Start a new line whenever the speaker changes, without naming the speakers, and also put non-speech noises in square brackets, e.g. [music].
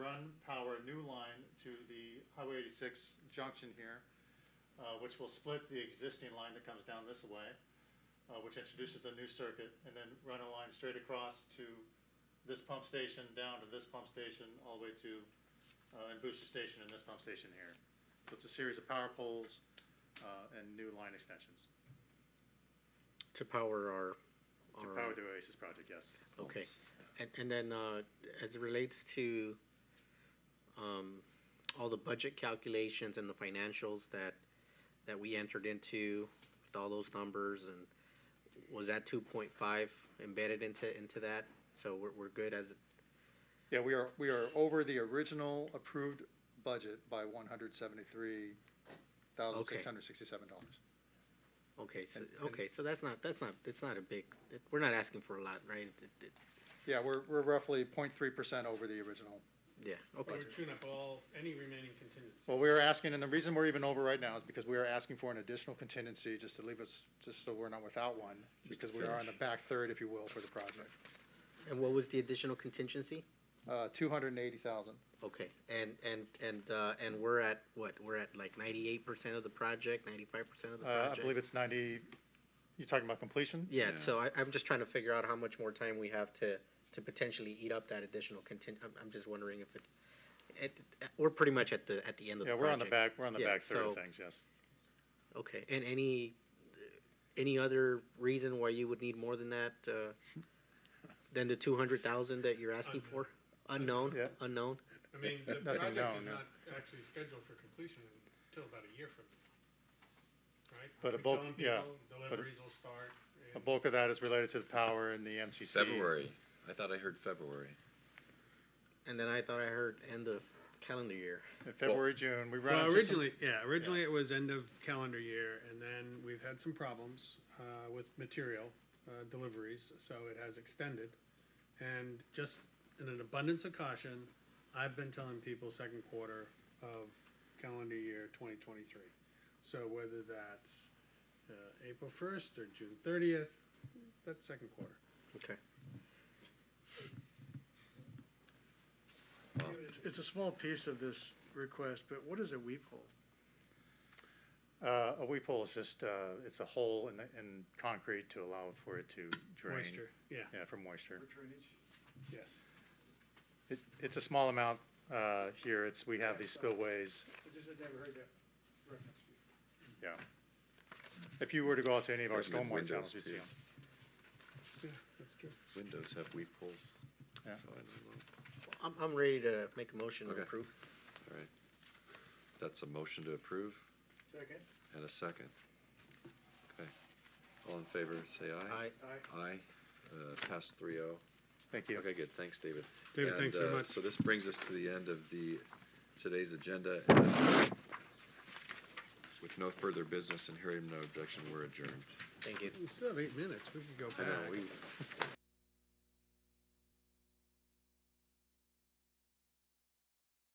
a new line to the Highway 86 junction here, uh, which will split the existing line that comes down this way, uh, which introduces a new circuit, and then run a line straight across to this pump station, down to this pump station, all the way to uh, and booster station and this pump station here. So it's a series of power poles uh, and new line extensions
to power our.
to
our,
power the Oasis project, yes.
Okay, and, and then, uh, as it relates to, um, all the budget calculations and the financials that, that we entered into with all those numbers and was that two point five embedded into, into that? So we're, we're good as,
Yeah, we are, we are over the original approved budget by one hundred seventy-three thousand six hundred sixty-seven dollars.
okay, so,
And- and-
okay, so that's not, that's not, it's not a big, it- we're not asking for a lot, right? It- it- it-
Yeah, we're, we're roughly 0.3 percent over the original.
Yeah, okay,
We would tune up all, any remaining contingencies.
Oh,
Well, we are asking, and the reason we're even over right now is because we are asking for an additional contingency just to leave us, just so we're not without one, because we are on the back third, if you will, for the project.
and what was the additional contingency?
Uh, two hundred and eighty thousand.
Okay, and, and, and, uh, and we're at, what, we're at like ninety-eight percent of the project, ninety-five percent of the
Uh,
project?
I believe it's 90, you talking about completion?
Yeah, so I, I'm just trying to figure out how much more time we have to, to potentially eat up that additional contin, I'm, I'm just wondering if it's, it, we're pretty much at the, at the end of the
Yeah, we're on the
project.
back, we're on the
Yeah,
back third of
so-
things, yes.
Okay, and any, any other reason why you would need more than that, uh, than the two hundred thousand that you're asking for? Unknown,
Yeah.
unknown?
I mean,
[laughs]
the
Nothing
project
known,
is
no.
not actually scheduled for completion until about a year from now, right?
But a
We
bulk-
telling
yeah,
people
a-
Deliveries will start.
The
and-
bulk of that is related to the power and the MCC.
February. I thought I heard February.
And then I thought I heard end of calendar year.
In February, June, we run
Well,
into some,
originally, yeah, originally it was end of calendar year, and then we've had some problems uh, with material uh, deliveries, so it has extended. And just in an abundance of caution, I've been telling people second quarter of calendar year 2023. So whether that's uh, April 1st or June 30th, that's second quarter.
Okay.
It's, it's a small piece of this request, but what is a weep hole?
uh, a weep hole is just, uh, it's a hole in the, in concrete to allow for it to drain.
Moisture, yeah,
Yeah, for moisture.
yes.
It, it's a small amount, uh, here, it's, we have these spillways,
I just had never heard that reference before.
yeah. If you were to go out to any of our
Recommend
stormwater channels,
windows,
you'd see
too.
'em.
Yeah, that's true.
Windows have weep holes.
Yeah.
So I don't know.
I'm, I'm ready to make a motion to
Okay.
approve.
All right. That's a motion to approve
Second?
and a second. Okay. All in favor, say aye.
I,
Aye.
Aye. Uh, passed three oh.
Thank you.
Okay, good. Thanks, David.
David,
And,
thanks very
uh,
much.
So this brings us to the end of the, today's agenda. And With no further business and hearing no objection, we're adjourned.
thank you.
We still have eight minutes, we could go
I
back.
know, we,